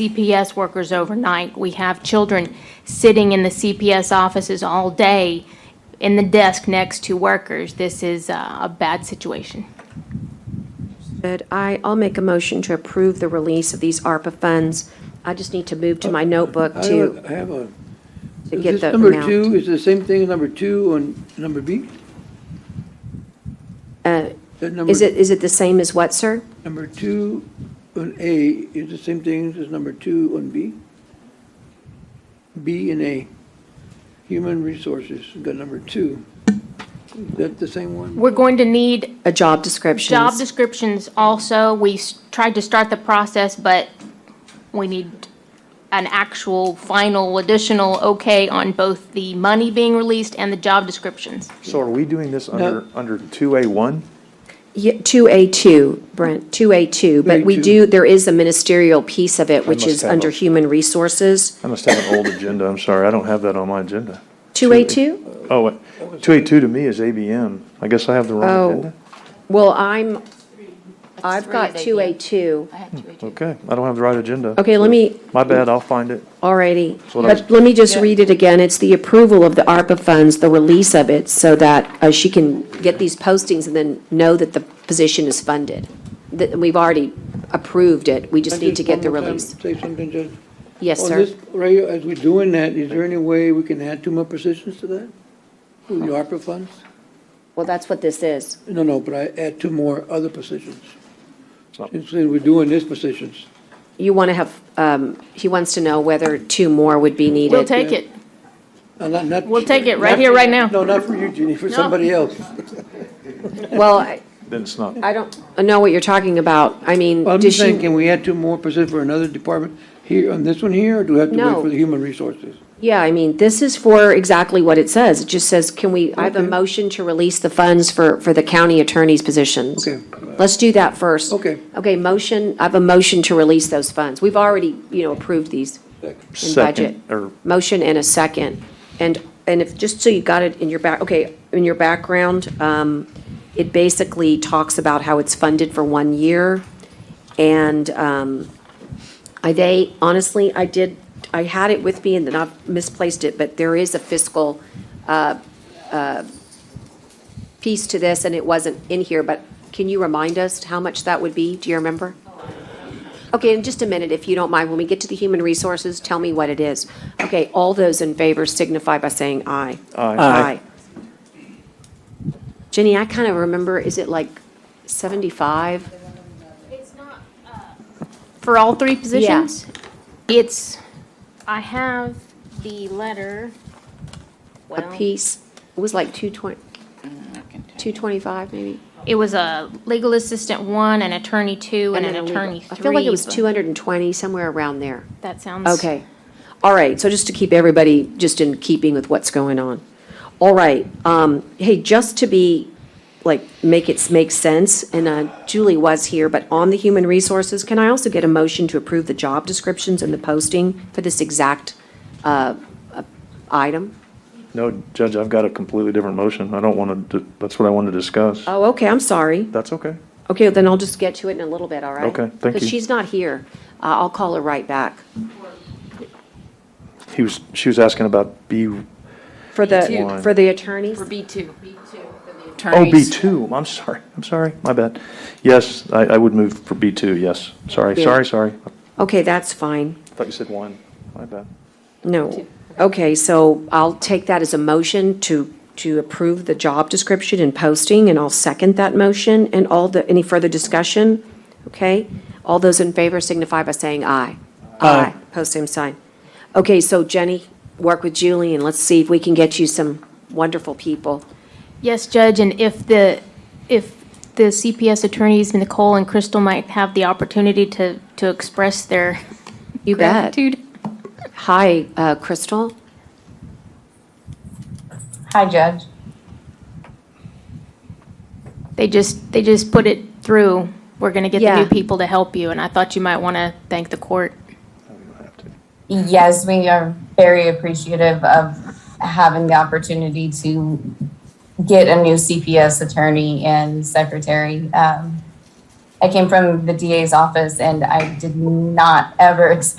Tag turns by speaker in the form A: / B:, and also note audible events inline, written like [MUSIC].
A: CPS workers overnight. We have children sitting in the CPS offices all day in the desk next to workers. This is uh, a bad situation.
B: Good. I, I'll make a motion to approve the release of these ARPA funds. I just need to move to my notebook
C: I
B: to,
C: have a- I have a,
B: to
C: is
B: get
C: this
B: the
C: number two,
B: amount.
C: is the same thing as number two on number B? That number-
B: Uh, Is it, is it the same as what, sir?
C: Number two on A is the same thing as number two on B? B and A, human resources, we got number two. Is that the same one?
A: We're going to need
B: A job description.
A: job descriptions also. We s- tried to start the process, but we need an actual final additional okay on both the money being released and the job descriptions.
D: So are we doing this under, under 2A1?
B: Yeah, 2A2, Brent, 2A2, but we
C: 2A2.
B: do, there is a ministerial piece of it, which
D: must
B: is
D: have
B: under
D: a-
B: human resources.
D: I must have an old agenda, I'm sorry, I don't have that on my agenda.
B: 2A2?
D: Oh, wait, 2A2 to me is ABM. I guess I have the
B: Oh.
D: wrong agenda?
B: Well, I'm, I've got
A: three, they-
B: 2A2.
A: I had two agents.
D: Okay, I don't have the right agenda.
B: Okay, let me,
D: My bad, I'll find it.
B: Alrighty,
D: what I was-
B: but let me just read it again. It's the approval of the ARPA funds, the release of it, so that uh, she can get these postings and then know that the position is funded. That, we've already approved it, we just
C: Can I
B: need to get the
C: one more time
B: release.
C: Say something, Judge.
B: Yes,
C: On
B: sir.
C: this, right, here, as we're doing that, is there any way we can add two more positions to that? With the ARPA funds?
B: Well, that's what this is.
C: No, no, but I add two more other positions.
D: not-
C: Since we're doing these positions.
B: You want to have, um, he wants to know whether two more would be needed.
A: We'll take it.
C: No, Uh, not- not-
A: We'll take it right
C: not-
A: here, right now.
C: No, not for you, Jeannie, for somebody else.
B: Well, I,
D: Then it's not,
B: I don't know what you're talking about. I mean,
C: Well, I'm
B: does
C: just saying,
B: she,
C: can we add two more positions for another department here, on this one here, or do we have to
B: No.
C: wait for the human resources?
B: yeah, I mean, this is for exactly what it says. It just says, can we, I have a
C: Okay.
B: motion to release the funds for, for the county attorney's positions.
C: Okay.
B: Let's do that first.
C: Okay.
B: Okay, motion, I have a motion to release those funds. We've already, you know, approved these in budget.
D: second, or
B: Motion and a second. And, and if, just so you got it in your back, okay, in your background, um, it basically talks about how it's funded for one year. And, um, I, they, honestly, I did, I had it with me and then I misplaced it, but there is a fiscal, uh, uh, piece to this and it wasn't in here, but can you remind us how much that would be? Do you remember? Okay, in just a minute, if you don't mind, when we get to the human resources, tell me what it is. Okay, all those in favor signify by saying aye.
D: Aye.
B: Aye. Jenny, I kind of remember, is it like 75?
A: uh, For all three positions? It's, I have the letter.
B: A
A: Well,
B: piece? It was like 220, 225 maybe?
A: It was a legal assistant one, an attorney two, and an
B: then a legal-
A: attorney three.
B: I feel like it was
A: but
B: 220, somewhere around there.
A: That sounds.
B: Okay. All right, so just to keep everybody just in keeping with what's going on. All right, um, hey, just to be, like, make it make sense, and, uh, Julie was here, but on the human resources, can I also get a motion to approve the job descriptions and the posting for this exact, uh, uh, item?
D: no, Judge, I've got a completely different motion. I don't want to, that's what I wanted to discuss.
B: Oh, okay, I'm sorry.
D: That's okay.
B: Okay, then I'll just get to it in a little bit, all right?
D: Okay, thank
B: Because
D: you.
B: she's not here. Uh, I'll call her right back.
D: He was, she was asking about B, oh,
B: For the,
D: One.
B: for the attorneys?
E: B2. B2
D: oh, B2, I'm sorry, I'm sorry, my bad. Yes, I, I would move for B2, yes. Sorry,
B: Yeah.
D: sorry, sorry. I
B: Okay, that's fine.
D: thought you said one, my bad.
B: No. Okay, so I'll take that as a motion to, to approve the job description and posting, and I'll second that motion. And all the, any further discussion? Okay? All those in favor signify by saying aye. Aye. Post same sign. Okay, so Jenny, work with Julie, and let's see if we can get you some wonderful people.
A: Yes, Judge, and if the, if the CPS attorneys, Nicole and Crystal might have the opportunity to, to express their
B: You bet.
A: gratitude.
B: Hi, uh, Crystal?
E: Hi, Judge.
A: They just, they just put it through. We're going to get the
B: Yeah.
A: new people to help you, and I thought you might want to thank the court.
E: Yes, we are very appreciative of having the opportunity to get a new CPS attorney and secretary. Um, I came from the DA's office and I did not ever [LAUGHS] expect